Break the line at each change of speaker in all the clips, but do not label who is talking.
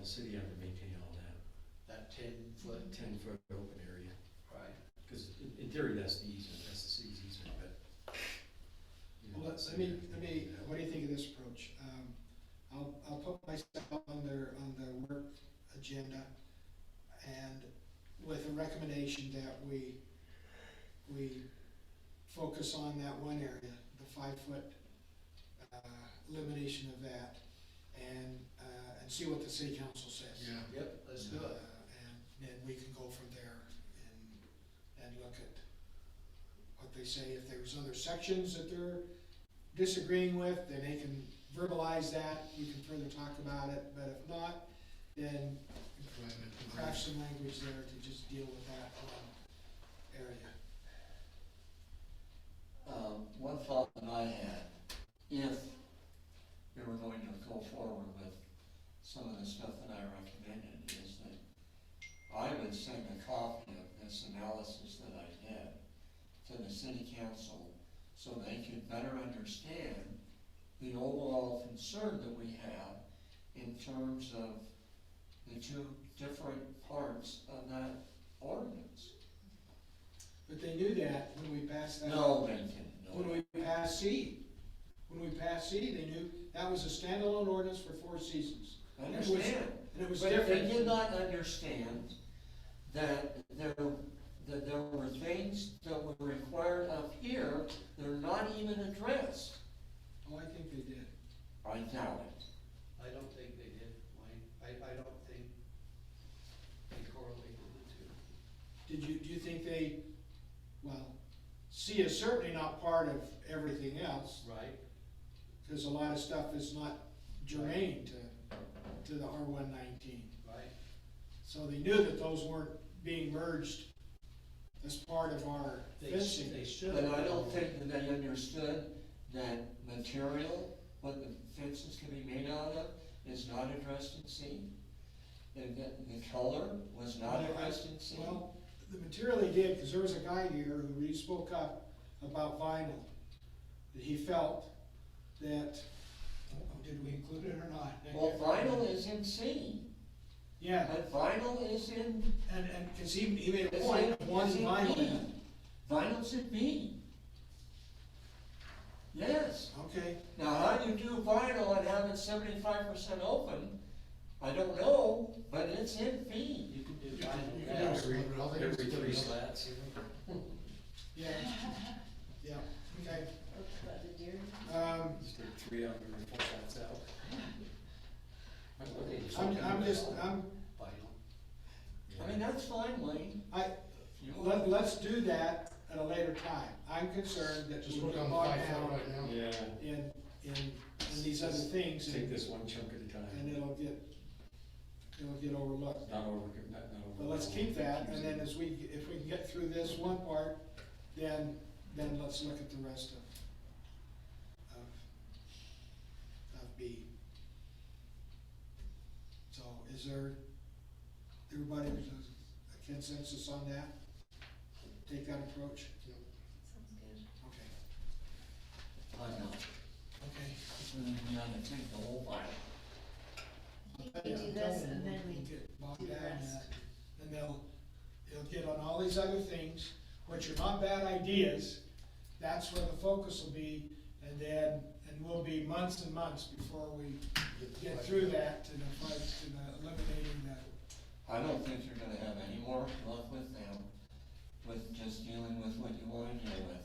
the city had to maintain all that,
that ten foot,
ten foot open area.
right?
Because in theory, that's the easement, that's the city's easement, but. you know,
Well, let- let me, let me, what do you think of this approach? Um, I'll, I'll put myself on their, on their work agenda and with a recommendation that we, we focus on that one area, the five-foot uh, elimination of that and, uh, and see what the city council says.
Yeah.
Yep, let's do
Uh,
it.
And then we can go from there and, and look at what they say. If there's other sections that they're disagreeing with, then they can verbalize that, we can further talk about it, but if not, then craft some language there to just deal with that um, area.
Um, one thought that I had, if we were going to go forward with some of the stuff that I recommended, is that I would send a copy of this analysis that I did to the city council so they could better understand the overall concern that we have in terms of the two different parts of that ordinance.
But they knew that when we passed that.
No, they didn't know.
When we passed C, when we passed C, they knew that was a standalone ordinance for four seasons,
I Understand.
and it was
But they
different.
did not understand that there, that there were things that were required up here that are not even addressed.
Oh, I think they did.
I doubt it.
I don't think they did, Wayne. I, I don't think they correlated the two.
Did you, do you think they, well, C is certainly not part of everything else,
Right.
because a lot of stuff is not germane to, to the R one nineteen.
Right?
So they knew that those weren't being merged as part of our
They, sh-
fencing.
they should.
But I don't think that they understood that material, what the fences can be made out of, is not addressed in C. And that the color was not addressed in C.
Well, the material they did, because there was a guy here who really spoke up about vinyl, that he felt that, oh, did we include it or not?
Well, vinyl is in C,
Yeah,
but vinyl is in
and, and, because he, he made a
It's
point,
in- E.
one
it's in
vinyl.
B. Vinyl's in B. Yes,
Okay,
now how you do vinyl and have it seventy-five percent open, I don't know, but it's in B.
You can do
You can- you
vinyl
can do
now.
every, every three slats.
yeah, yeah, okay.
About the deer.
Um,
Just take three out, every four slats out.
Okay, so
I'm,
can
I'm
you
just,
do
I'm,
Vinyl.
I mean, that's fine, Wayne.
I,
You-
let, let's do that at a later time. I'm concerned that we
Just work
get
on the
bogged
five foot
down
right now.
Yeah,
in, in, in these other things. and-
take this one chunk at a
and
time,
it'll get, it'll get overlooked.
not over, not, not over.
But let's keep that, and then as we, if we can get through this one part, then, then let's look at the rest of, of, of B. So is there, everybody, there's a consensus on that? Take that approach?
Sounds good.
Okay,
I know,
okay.
it's really, you know, they take the whole vinyl.
You can do this and then we do
Get bogged
the
down in
rest.
that. uh, and they'll, they'll get on all these other things, which are not bad ideas. That's where the focus will be, and then, and we'll be months and months before we get through that to the fight, to the eliminating the,
I don't think you're gonna have any more luck with them, with just dealing with what you wanna deal with.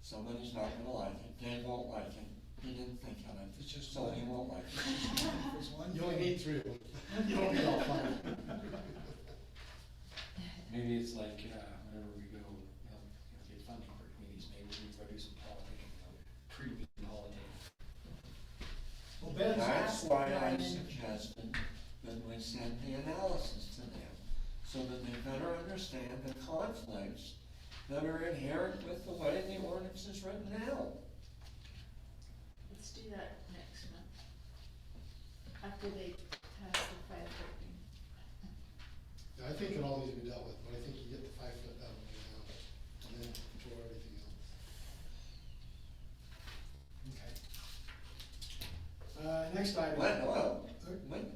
Somebody's not gonna like it, Dave won't like it, he didn't think of it,
It's just
so he
like-
won't like it.
there's one.
You only
thing-
need three of them. You don't need all five.
Maybe it's like, uh, whenever we go, you know, you know, get funding for committees, maybe we produce some politics, you know, pre-meeting politics.
Well, Ben's
That's
asked,
why I
Diamond.
suggested that we send the analysis to them, so that they better understand the conflicts that are inherent with the way the ordinance is written now.
Let's do that next month. After they pass the five foot thing.
Yeah, I think it all needs to be dealt with, but I think you get the five foot out of it now, and then control everything else.
okay. Uh, next item.
What